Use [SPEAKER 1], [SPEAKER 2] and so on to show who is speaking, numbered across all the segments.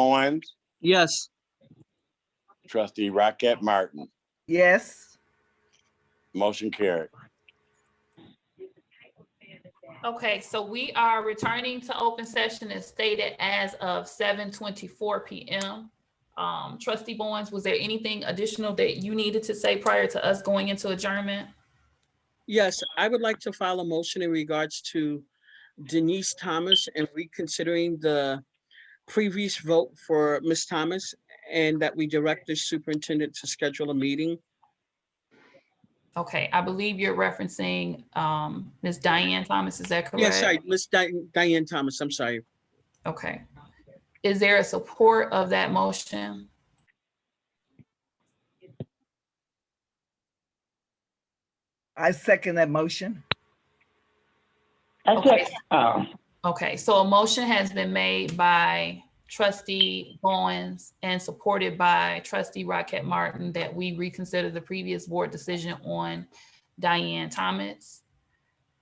[SPEAKER 1] Bowens,
[SPEAKER 2] Yes.
[SPEAKER 1] trustee Rocket Martin.
[SPEAKER 3] Yes.
[SPEAKER 1] Motion carried.
[SPEAKER 4] Okay, so we are returning to open session as stated as of seven twenty-four PM. Um, trustee Bowens, was there anything additional that you needed to say prior to us going into adjournment?
[SPEAKER 2] Yes, I would like to file a motion in regards to Denise Thomas and reconsidering the previous vote for Ms. Thomas and that we direct the superintendent to schedule a meeting.
[SPEAKER 4] Okay, I believe you're referencing, um, Ms. Diane Thomas, is that correct?
[SPEAKER 2] Yes, sorry, Ms. Di- Diane Thomas, I'm sorry.
[SPEAKER 4] Okay. Is there a support of that motion?
[SPEAKER 3] I second that motion.
[SPEAKER 5] I
[SPEAKER 4] Okay.
[SPEAKER 5] said, oh,
[SPEAKER 4] Okay, so a motion has been made by trustee Bowens and supported by trustee Rocket Martin that we reconsider the previous board decision on Diane Thomas.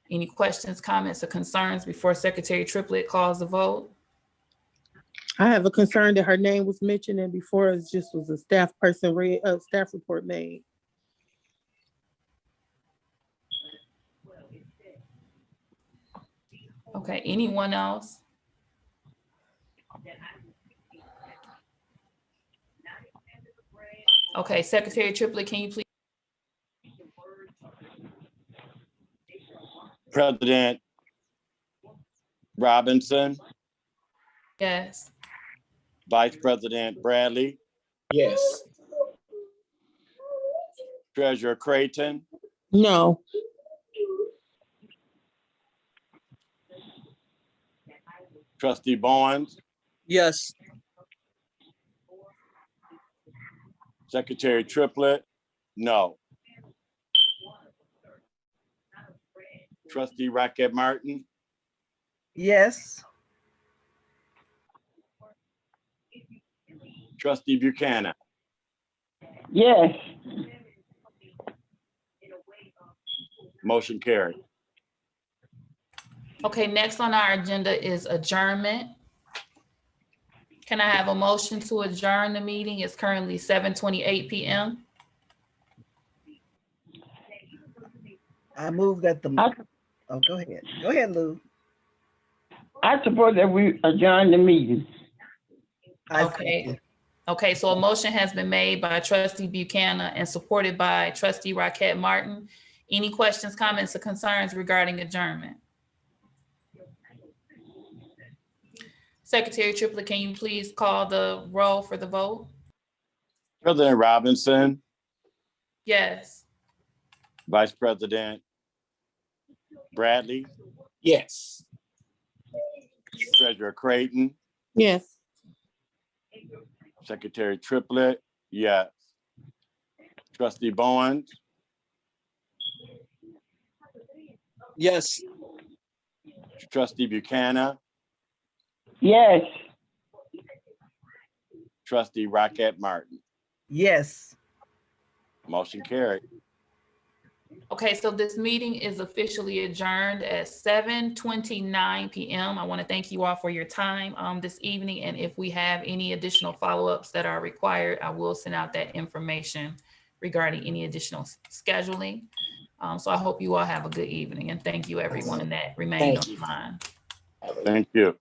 [SPEAKER 4] Any questions, comments, or concerns before Secretary Triplett calls the vote?
[SPEAKER 6] I have a concern that her name was mentioned and before it just was a staff person read, uh, staff report made.
[SPEAKER 4] Okay, anyone else? Okay, Secretary Triplett, can you please?
[SPEAKER 1] President Robinson,
[SPEAKER 4] Yes.
[SPEAKER 1] Vice President Bradley,
[SPEAKER 7] Yes.
[SPEAKER 1] Treasurer Creighton,
[SPEAKER 6] No,
[SPEAKER 1] trustee Bowens,
[SPEAKER 2] Yes,
[SPEAKER 1] secretary Triplett, no. Trustee Rocket Martin,
[SPEAKER 3] Yes.
[SPEAKER 1] trustee Buchanan,
[SPEAKER 5] yes,
[SPEAKER 1] motion carried.
[SPEAKER 4] Okay, next on our agenda is adjournment. Can I have a motion to adjourn the meeting? It's currently seven twenty-eight PM.
[SPEAKER 3] I move that the,
[SPEAKER 5] I-
[SPEAKER 3] oh, go ahead. Go ahead, Lou.
[SPEAKER 5] I suppose that we adjourn the meeting.
[SPEAKER 3] I
[SPEAKER 4] Okay.
[SPEAKER 3] second.
[SPEAKER 4] Okay, so a motion has been made by trustee Buchanan and supported by trustee Rocket Martin. Any questions, comments, or concerns regarding adjournment? Secretary Triplett, can you please call the roll for the vote?
[SPEAKER 1] President Robinson,
[SPEAKER 4] Yes.
[SPEAKER 1] Vice President Bradley,
[SPEAKER 7] Yes.
[SPEAKER 1] treasurer Creighton,
[SPEAKER 6] yes.
[SPEAKER 1] secretary Triplett, yes. Trustee Bowens,
[SPEAKER 2] yes.
[SPEAKER 1] trustee Buchanan,
[SPEAKER 5] Yes,
[SPEAKER 1] trustee Rocket Martin,
[SPEAKER 3] Yes.
[SPEAKER 1] motion carried.
[SPEAKER 4] Okay, so this meeting is officially adjourned at seven twenty-nine PM. I want to thank you all for your time um this evening, and if we have any additional follow-ups that are required, I will send out that information regarding any additional s- scheduling. Um, so I hope you all have a good evening, and thank you everyone that remained
[SPEAKER 7] Thank you.
[SPEAKER 4] online.
[SPEAKER 1] Thank you.